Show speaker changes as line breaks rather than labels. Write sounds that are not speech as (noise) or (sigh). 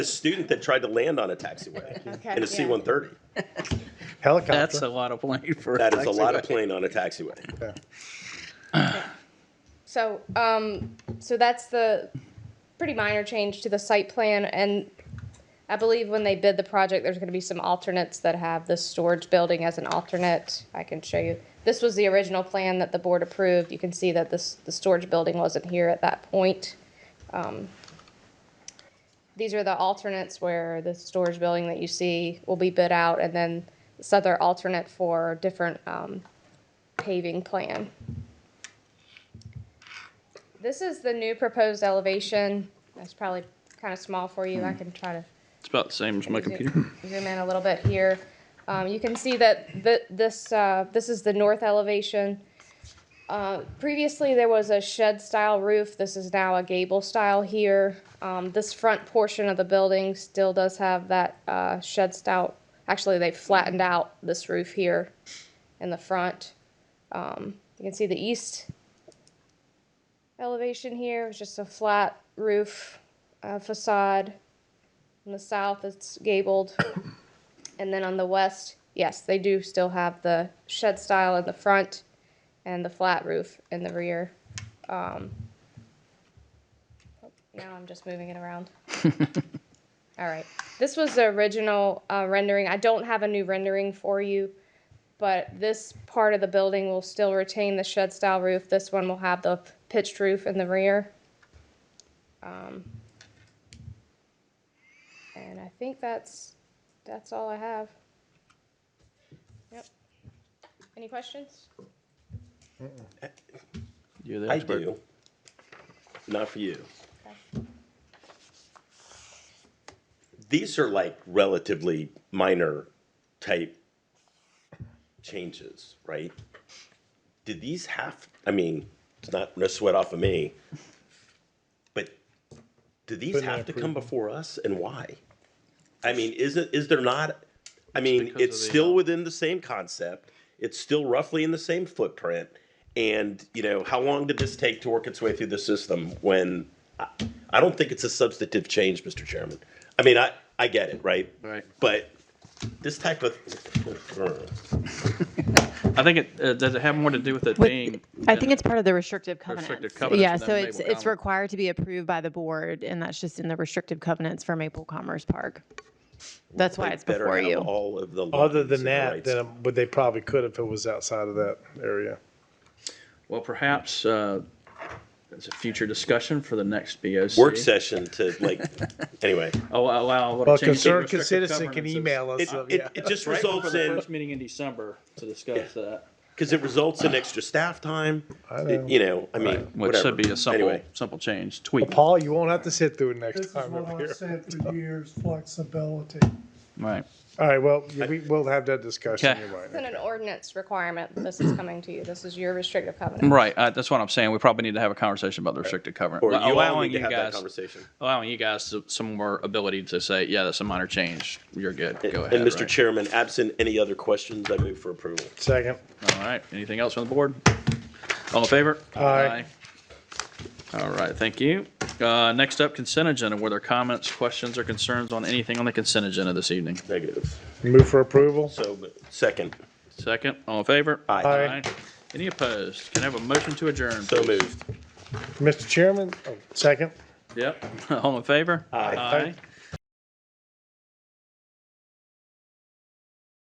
a student that tried to land on a taxiway
(laughs) Okay,
in a
yeah.
C one thirty.
Helicopter.
That's a lot of plane for.
That is a lot of plane on a taxiway.
Yeah.
So, um, so that's the pretty minor change to the site plan, and I believe when they bid the project, there's gonna be some alternates that have the storage building as an alternate. I can show you. This was the original plan that the board approved. You can see that this, the storage building wasn't here at that point. Um, These are the alternates where the storage building that you see will be bid out, and then this other alternate for different, um, paving plan. This is the new proposed elevation. That's probably kind of small for you. I can try to
It's about the same as my computer.
(laughs)
zoom zoom in a little bit here. Um, you can see that th this, uh, this is the north elevation. Uh, previously, there was a shed-style roof. This is now a gable style here. Um, this front portion of the building still does have that, uh, shed style. Actually, they flattened out this roof here in the front. Um, you can see the east elevation here, it's just a flat roof, uh, facade. In the south, it's gabled. And then on the west, yes, they do still have the shed style in the front and the flat roof in the rear. Um, oh, now I'm just moving it around. All right. This was the original uh, rendering. I don't have a new rendering for you, but this part of the building will still retain the shed style roof. This one will have the pitched roof in the rear. Um, and I think that's that's all I have. Yep. Any questions?
You're the
I
expert.
do. Not for you. These are like relatively minor type changes, right? Did these have, I mean, it's not, no sweat off of me, but do these
Couldn't
have to come
approve.
before us and why? I mean, is it, is there not, I mean,
because of
it's
the,
still
uh,
within the same concept. It's still roughly in the same footprint. And, you know, how long did this take to work its way through the system when, I, I don't think it's a substantive change, Mr. Chairman. I mean, I, I get it, right?
Right.
But this type of,
I think it, uh, does it have more to do with it
With-
being?
I think it's part of the restrictive covenants.
Restrictive covenants
Yeah,
and that
so it's,
Maple
it's
Common.
required to be approved by the board, and that's just in the restrictive covenants for Maple Commerce Park. That's why it's
better
before
have
you.
all of the.
Other
lines
than
and
that,
rights.
then, um, but they probably could if it was outside of that area.
Well, perhaps, uh, it's a future discussion for the next BOC.
Work session to
(laughs)
like, anyway.
Oh, allow.
Well, concerned citizen can email us.
It,
so,
it,
yeah.
it just
Right before
results
the
in,
first meeting in December to discuss that.
because it results in extra staff time.
I know.
You know, I mean,
Which
whatever.
should be a simple,
Anyway,
simple change, tweak.
Paul, you won't have to sit through it next
This is
time.
what
up
I've
here.
said
(laughs)
for years, flexibility.
Right.
All right. Well, yeah, we, we'll have that discussion.
Okay.
You're right.
It's an ordinance requirement. This is coming to you. This is your restrictive covenant.
Right. Uh, that's what I'm saying. We probably need to have a conversation about the restricted covenant.
or you all
allowing
need to
you
have that
guys,
conversation.
allowing you guys to- some more ability to say, yeah, that's a minor change. You're good. Go ahead.
And Mr.
right?
Chairman, absent any other questions, I move for approval.
Second.
All right, anything else on the board? All in favor?
Aye.
Aye. All right, thank you. Uh, Next up, consent agenda. Were there comments, questions, or concerns on anything on the consent agenda this evening?
Negative.
Move for approval.
So, second.
Second, all in favor?
Aye.
Aye.
Any opposed? Can I have a motion to adjourn?
So
please?
moved.
Mr. Chairman, oh, second.
Yep, (laughs) all in favor?
Aye.
Aye.